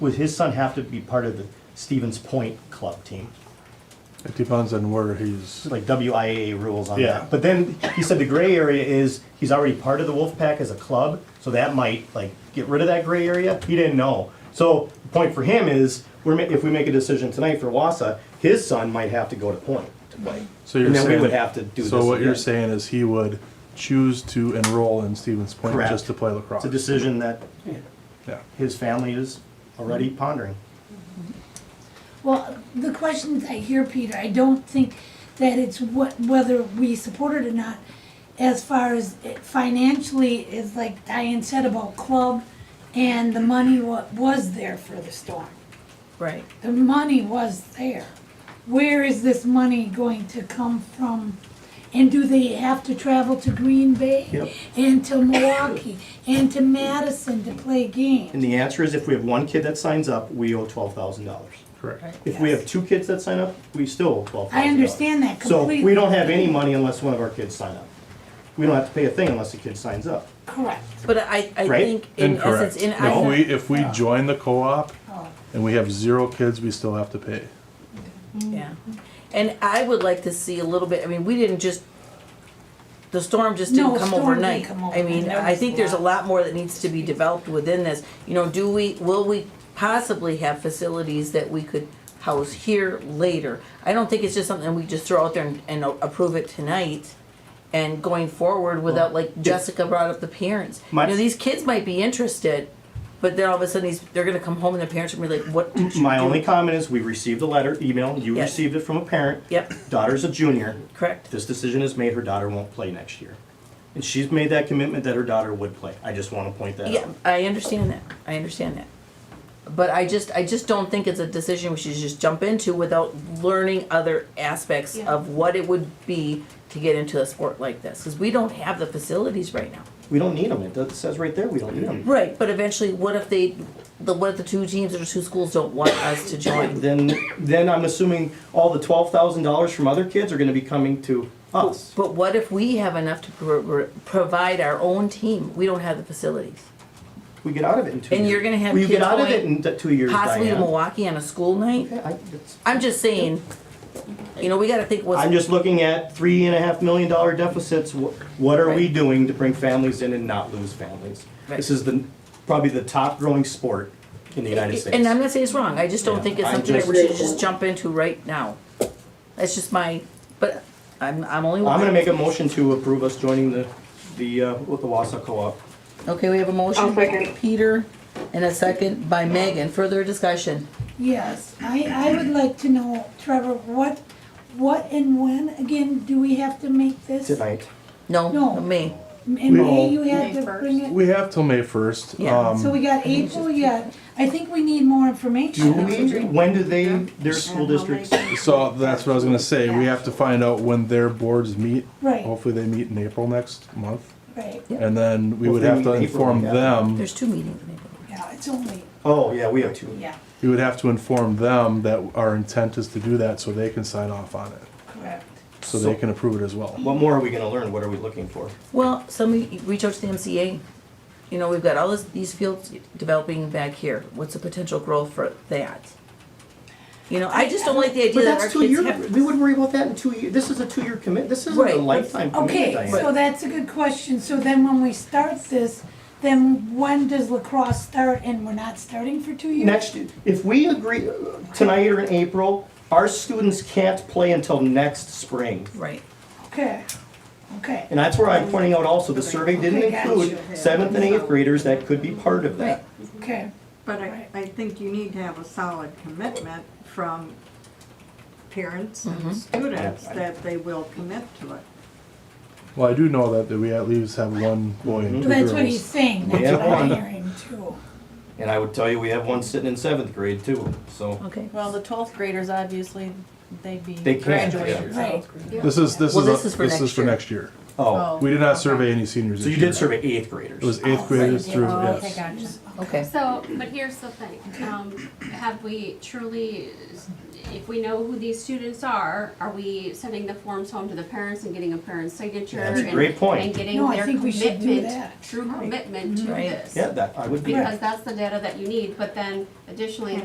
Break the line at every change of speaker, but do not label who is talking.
would his son have to be part of the Stevens Point club team?
It depends on where he's.
Like WIAA rules on
Yeah.
that. But then he said the gray area is he's already part of the Wolfpack as a club, so that might like get rid of that gray area. He didn't know. So the point for him is we're ma- if we make a decision tonight for Wassa, his son might have to go to Point to play.
So you're
and then
saying-
we would have to do
So
this
what you're
again.
saying is he would choose to enroll in Stevens Point
Correct.
just to play lacrosse.
It's a decision that
yeah.
his family is already pondering.
Well, the questions I hear, Peter, I don't think that it's what, whether we support it or not, as far as it financially, is like Diane said about club, and the money wa- was there for the storm.
Right.
The money was there. Where is this money going to come from? And do they have to travel to Green Bay?
Yep.
And to Milwaukee, and to Madison to play games?
And the answer is if we have one kid that signs up, we owe twelve thousand dollars.
Correct.
If we
Yes.
have two kids that sign up, we still owe twelve thousand dollars.
I understand that
So we
completely.
don't have any money unless one of our kids sign up. We don't have to pay a thing unless the kid signs up.
Correct.
But I, I
Right?
think in
Incorrect.
essence, in
if we
I,
if we join the co-op
Oh.
and we have zero kids, we still have to pay.
yeah, and I would like to see a little bit. I mean, we didn't just the storm just didn't
No,
come
storm didn't
overnight.
come
I mean,
overnight. There
I
was
think
a
there's a
lot.
lot more that needs to be developed within this. You know, do we will we possibly have facilities that we could house here later? I don't think it's just something we just throw out there and, and approve it tonight. And going forward without, like Jessica brought up, the parents. You
My-
know, these kids might be interested, but then all of a sudden, these, they're going to come home and their parents are going to be like, "What did you
My
do?"
only comment is, we received a letter, email, you
Yes.
received it from a parent.
Yep.
Daughter's a junior.
Correct.
This decision is made, her daughter won't play next year. And she's made that commitment that her daughter would play. I just wanna point that
Yeah,
out.
I understand that. I understand that. But I just, I just don't think it's a decision we should just jump into without learning other aspects
Yeah.
of what it would be to get into a sport like this, because we don't have the facilities right now.
We don't need them, it does- it says right there, we don't need them.
Right, but eventually, what if they, the, what if the two teams or the two schools don't want us to join?
Then, then I'm assuming all the twelve thousand dollars from other kids are gonna be coming to us.
But what if we have enough to pro- pro- provide our own team? We don't have the facilities.
We get out of it in two years.
And you're gonna have
We get
kids
out of it
going
in th- two years,
Possibly to
Diane.
Milwaukee on a school night?
Yeah, I- it's-
I'm just saying, you know, we gotta think what's.
I'm just looking at three and a half million dollar deficits. Wh- What are we
Right.
doing to bring families in and not lose families? This
Right.
is the, probably the top growing sport in the United States.
And I'm not saying it's wrong, I just don't think it's
I'm
something that
just-
we should just jump into right now. That's just my, but I'm, I'm only one.
I'm gonna make a motion to approve us joining the, the, uh, with the Wausau Co-op.
Okay, we have a motion,
I'll second.
Peter, and a second by Megan, further discussion.
Yes, I, I would like to know, Trevor, what, what and when, again, do we have to make this?
Tonight,
No,
No.
me,
In May, you
May
had to
first.
bring it,
We have till May first.
Yeah.
Um,
so we got April yet, I think we need more
do
information.
we, when do they, their school districts?
so that's what I was gonna say. We have to find out when their boards meet.
Right.
Hopefully they meet in April next month,
Right,
and then we would
Hopefully
have to
in April,
inform
yeah.
them.
there's two meetings in April.
yeah, it's only,
Oh, yeah, we have two.
yeah,
We would have to inform them that our intent is to do that, so they can sign off on it,
correct.
so they can approve it as well.
What more are we gonna learn? What are we looking for?
Well, somebody, reach out to the MCA, you know, we've got all this, these fields developing back here, what's the potential growth for that? You know, I just don't like the idea
But
that our
that's two
kids
year,
have.
we would worry about that in two years. This is a two-year commit, this isn't a
Right.
lifetime commitment,
Okay,
Diane.
so that's a good question, so then when we start this, then when does lacrosse start, and we're not starting for two years?
Next, if we agree uh, tonight or in April, our students can't play until next spring.
Right,
Okay, okay,
And that's where I'm pointing out also, the survey didn't
Okay, gotcha.
include seventh and eighth graders that could be part of that.
okay,
But I, I think you need to have a solid commitment from parents and students that they will commit to it.
Well, I do know that, that we at least have one boy and two
Well, that's what
girls.
he's saying,
We
that's
have
what I'm
one.
hearing too.
And I would tell you, we have one sitting in seventh grade too, so.
okay.
Well, the twelfth graders, obviously, they'd be
They can't,
graduating.
yeah.
so-
This is, this
Well,
is, a-
this is for
this is
next
for
year.
next year.
Oh,
We did not survey
Okay.
any seniors
so
this
you did
year.
survey eighth
It
graders.
was eighth graders through,
Oh, Okay,
yes.
gotcha.
Okay.
So, but here's the thing, um, have we truly, if we know who these students are, are we sending the forms home to the parents and getting a parent's signature?
That's a
and-
great point.
And getting
No, I
their
think we should do
commitment,
that.
true
Right.
commitment to
Right.
this?
Yeah, that, I would be.
Because that's the data that you need, but then additionally,